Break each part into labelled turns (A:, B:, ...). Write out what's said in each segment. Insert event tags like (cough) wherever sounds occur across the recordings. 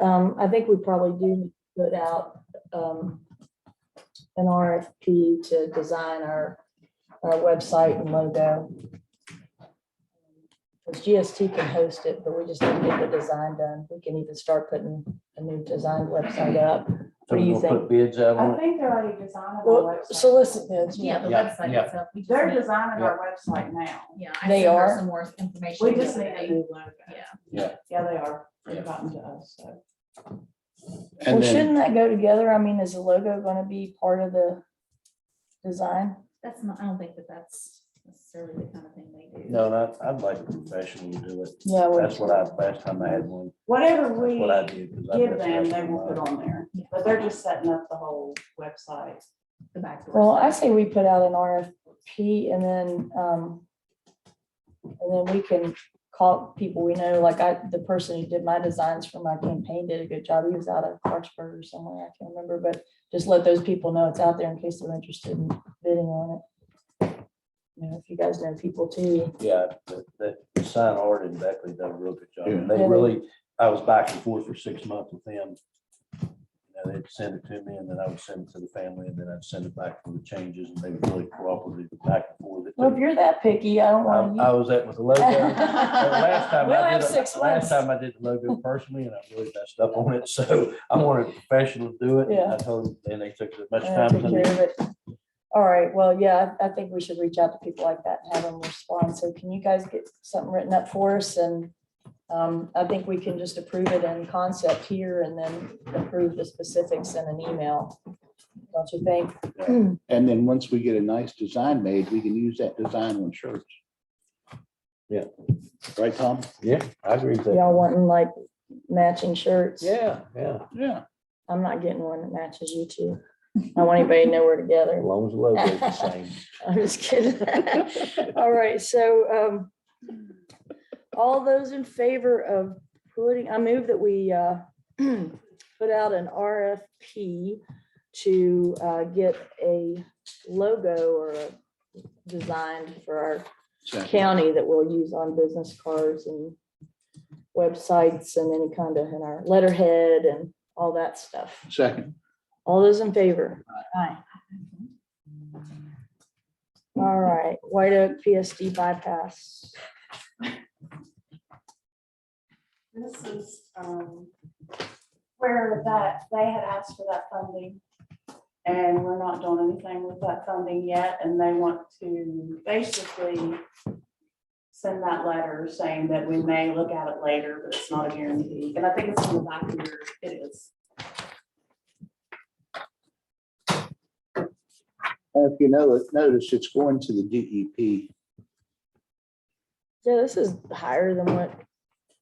A: Um, I think we probably do need to put out, um, an RFP to design our, our website and logo. Because GST can host it, but we just need to get the design done. We can even start putting a new design website up. What do
B: So we're
A: you
B: gonna put bids out
C: I
B: on it.
C: think they're already designing
A: Well,
C: our website.
A: solicit bids,
D: Yeah,
A: yeah.
D: the
B: Yeah,
D: website
B: yeah.
D: itself. we just
C: They're
D: need-
C: designing our website now.
D: Yeah, I
A: They
D: sent her
A: are.
D: some more information.
C: We just need a
D: yesterday.
C: new logo.
D: Yeah.
C: Yeah, they are.
B: Yeah.
C: They've gotten to us, so.
A: Well,
B: And then,
A: shouldn't that go together? I mean, is the logo gonna be part of the design?
D: That's not, I don't think that that's necessarily the kind of thing they do.
B: no, I- I'd like a professional to do it.
A: Yeah, we-
B: That's what I, last time I had one,
C: Whatever
B: that's what I
C: we
B: did. 'cause I
C: give
B: messed up
C: them, they
B: with
C: will put
B: mine.
C: on there.
D: Yeah.
C: But they're just setting up the whole website.
D: The back door.
A: Well, I
D: stuff.
A: say we put out an RFP and then, um, and then we can call people we know, like I, the person who did my designs for my campaign did a good job. He was out of Clarksburg or somewhere, I can't remember, but just let those people know it's out there in case they're interested in bidding on it. You know, if you guys know people too,
B: Yeah, the, the- the sign art and Beckley done a real good job.
E: Yeah.
B: They
A: Yeah.
B: really, I was back and forth for six months with them. You know, they'd send it to me and then I would send it to the family and then I'd send it back for the changes and they were really cooperative back and forth.
A: well, if you're that picky, I don't
B: I
A: want you.
B: I was at with the logo.
A: (laughs)
B: and Last time
A: We'll
B: I
A: have
B: did,
A: six
B: it-
A: months.
B: last time I did the logo personally and I really messed up on it, (laughs) so I wanted a professional to do it. and
A: Yeah.
B: I told them, and they took as much
A: Yeah,
B: time
A: take
B: as I
A: care
B: needed.
A: of it. All right, well, yeah, I I think we should reach out to people like that and have them respond. So can you guys get something written up for us? And um, I think we can just approve it in concept here and then approve the specifics in an email. Don't you think?
E: And then once we get a nice design made, we can use that design on shirts.
B: Yeah.
E: Right, Tom?
B: Yeah, I agree with
A: Y'all wanting like matching shirts?
B: Yeah, yeah,
E: Yeah.
A: I'm not getting one that matches you two. I don't want anybody to know we're together.
B: long as the
A: logo's the same. (laughs) I'm just kidding. (laughs) All right, so um, all those in favor of putting, I move that we uh, (clears throat) put out an RFP to uh, get a logo or a design for our county that we'll use on business cards and websites and any kind of, and our letterhead and all that stuff.
E: Second,
A: All those in favor? All right, White Oak PSD bypass.
C: This is, um, where that, they had asked for that funding. And we're not doing anything with that funding yet, and they want to basically send that letter saying that we may look at it later, but it's not a guarantee. And I think it's in the back here, it is. (laughs)
E: if you know, notice it's going to the E DEP.
A: Yeah, this is higher than what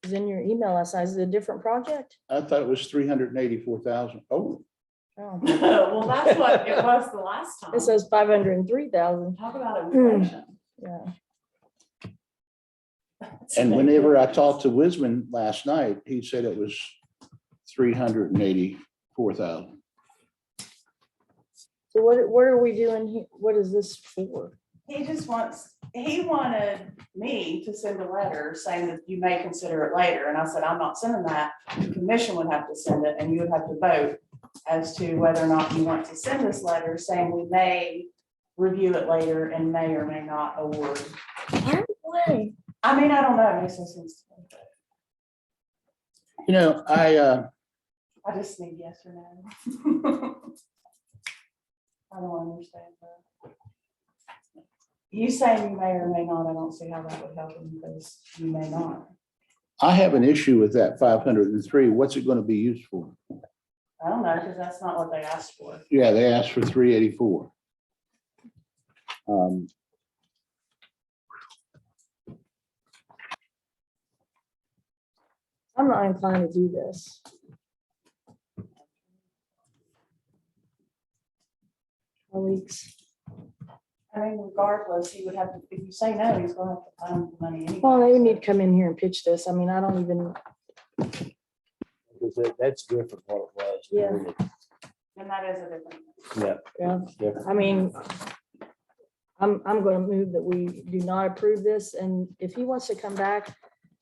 A: is in your email last night. Is it a different project?
E: I thought it was three hundred and eighty-four thousand. Oh,
A: Oh,
C: Well, that's what it was the last time.
A: It says five hundred and three thousand.
C: Talk about inflation.
A: Yeah,
E: and whenever I talked to Wisman last night, he said it was three hundred and eighty-four thousand.
A: so what, what are we doing here? What is this for?
C: He just wants, he wanted me to send a letter saying that you may consider it later, and I said, I'm not sending that. The commission would have to send it, and you would have to vote as to whether or not you want to send this letter saying we may review it later and may or may not award.
A: Why?
C: I mean, I don't know, he says, it's-
E: You know, I, uh,
C: I just need yes or no. (laughs) I don't understand that. You saying you may or may not, I don't see how that would help him, because you may not.
E: I have an issue with that five hundred and three. What's it going to be used for?
C: I don't know, because that's not what they asked for.
E: Yeah, they asked for three eighty-four. Um.
A: I'm not inclined to do this. Weeks.
C: I mean, regardless, he would have, to. if you say no, he's gonna have to find the money anyway.
A: Well, they need to come in here and pitch this. I mean, I don't even,
B: Because that- that's different what it was.
A: Yeah.
B: period.
C: And that is a different.
B: Yeah,
A: yeah.
B: it's different.
A: I mean, I'm, I'm going to move that we do not approve this, and if he wants to come back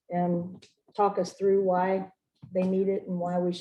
A: and talk us through why they need it and why we